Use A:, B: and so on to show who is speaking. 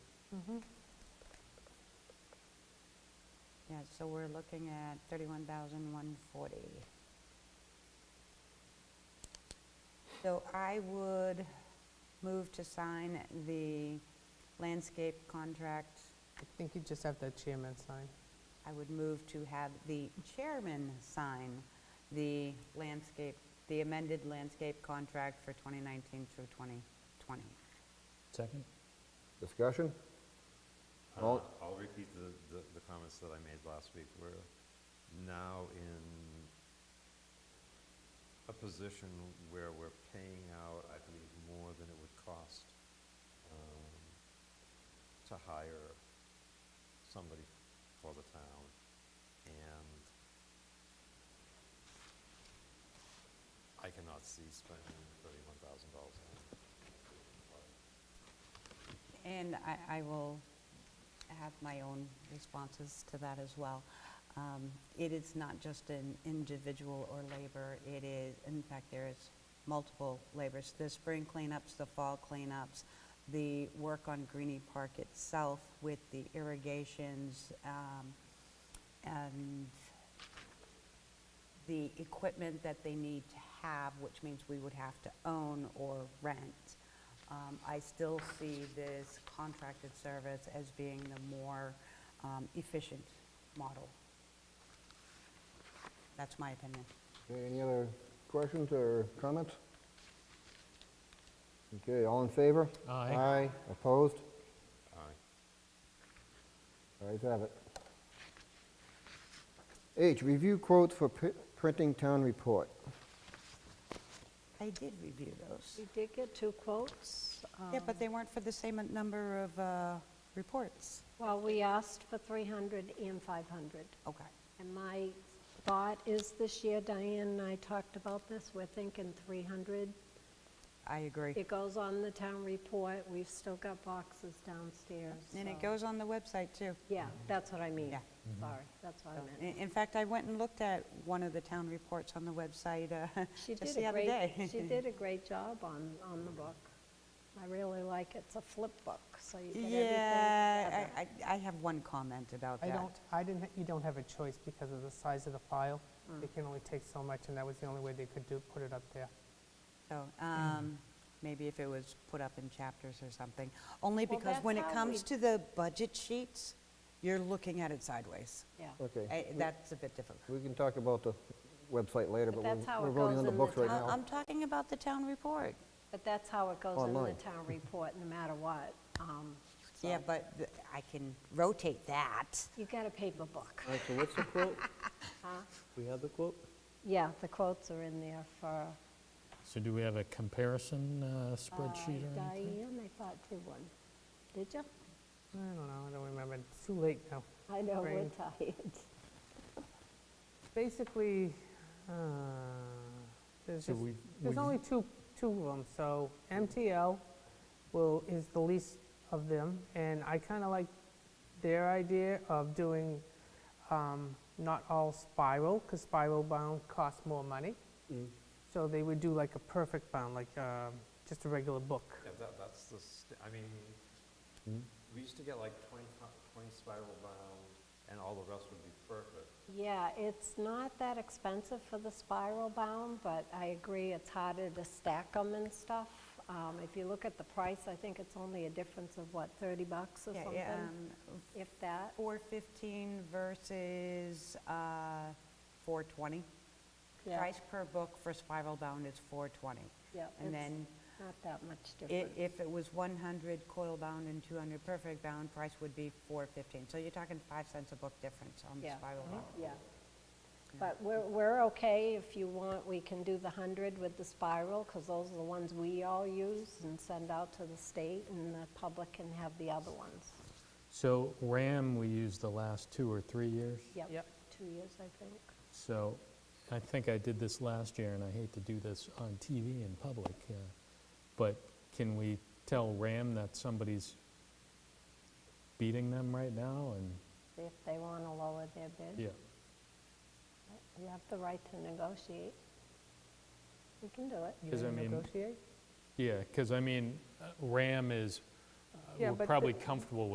A: Yeah, so we're looking at 31,140. So I would move to sign the landscape contract.
B: I think you just have the chairman sign.
A: I would move to have the chairman sign the landscape, the amended landscape contract for 2019 through 2020.
C: Second?
D: Discussion?
E: Uh,
D: All-
E: I'll repeat the, the- the comments that I made last week. We're now in a position where we're paying out, I believe, more than it would cost um, to hire somebody for the town. And I cannot see spending thirty-one thousand dollars on it.
A: And I, I will have my own responses to that as well. Um, It is not just an individual or labor, it is, in fact, there is multiple labors. The spring cleanups, the fall cleanups, the work on Greenie Park itself with the irrigations, um, and the equipment that they need to have, which means we would have to own or rent. Um, I still see this contracted service as being the more um, efficient model. That's my opinion.
D: Okay, any other questions or comments? Okay, all in favor?
C: Aye.
D: Aye, opposed?
E: Aye.
D: Ayes have it. H, review quotes for pri- printing town report.
A: I did review those.
F: We did get two quotes.
A: Yeah,
F: um,
A: but they weren't for the same number of uh, reports.
F: Well, we asked for 300 and 500.
A: Okay.
F: And my thought is this year, Diane and I talked about this, we're thinking 300.
A: I agree.
F: It goes on the town report, we've still got boxes downstairs.
A: And it
F: so-
A: goes on the website, too.
F: Yeah, that's what I mean.
A: Yeah.
F: Sorry, that's what
A: So, eh,
F: I
A: i-
F: meant.
A: In fact, I went and looked at one of the town reports on the website uh,
F: She
A: just
F: did
A: the
F: a
A: other day.
F: great, she did a great job on, on the book. I really like it. It's a flip book, so you get everything.
A: Yeah,
F: together.
A: I- I I have one comment about
B: I
A: that.
B: don't, I didn't, you don't have a choice because of the size of the file. They can only take so much, and that was the only way they could do, put it up there.
A: So, um, maybe if it was put up in chapters or something, only
F: Well,
A: because
F: that's
A: when it
F: how
A: comes
F: we-
A: to the budget sheets, you're looking at it sideways.
F: Yeah.
A: Eh,
D: Okay. we-
A: That's a bit difficult.
D: We can talk about the website later, but
F: But that's
D: we're
F: how
D: we're
F: it
D: voting
F: goes
D: on the
F: in the
D: books right
A: I-
D: now.
A: Uh, I'm talking about the town report.
F: But that's how it goes in the
D: Online.
F: town report, no matter what. Um,
A: Yeah,
F: so
A: but th- I can rotate that.
F: You got a paper book.
G: All right, so what's the quote? We have the quote?
F: Yeah, the quotes are in there for
C: So do we have a comparison uh,
F: uh,
C: spreadsheet or anything?
F: Diane, I thought, did one. Did you?
B: I don't know, I don't remember, it's too late now.
F: I know, we're
B: Brain.
F: tired.
B: Basically, uh, there's
C: So
B: just,
C: we-
B: there's
C: we-
B: only two, two of them, so MTL will, is the least of them, and I kind of like their idea of doing um, not all spiral, because spiral bound costs more money. So they would do like a perfect bound, like um, just a regular book.
E: Yeah, that, that's the, st- I mean, we used to get like 20, fi- 20 spiral bound, and all the rest would be perfect.
F: Yeah, it's not that expensive for the spiral bound, but I agree, it's harder to stack them and stuff. Um, If you look at the price, I think it's only a difference of, what, 30 bucks or
A: Yeah,
F: something?
A: yeah, um,
F: If that,
A: 415 versus uh, 420.
F: Yeah.
A: Price per book for spiral bound is 420.
F: yeah,
A: And
F: it's
A: then
F: not that much
A: I-
F: difference.
A: If it was 100 coil bound and 200 perfect bound, price would be 415. So you're talking 5 cents a book difference on the
F: Yeah.
A: spiral bound.
F: Yeah. But we're, we're okay, if you want, we can do the 100 with the spiral, because those are the ones we all use and send out to the state, and the public can have the other ones.
C: So RAM, we used the last two or three years.
B: Yep.
F: Two years, I think.
C: So I think I did this last year, and I hate to do this on TV in public, uh, but can we tell RAM that somebody's beating them right now? And,
F: See if they want to lower their bid.
C: yeah,
F: You have the right to negotiate. You can do it.
B: You
C: Because, I
B: wanna
C: mean,
B: negotiate?
C: yeah, because I mean, uh, RAM is, uh,
B: Yeah,
C: we're
B: but
C: probably
B: the-
C: comfortable with.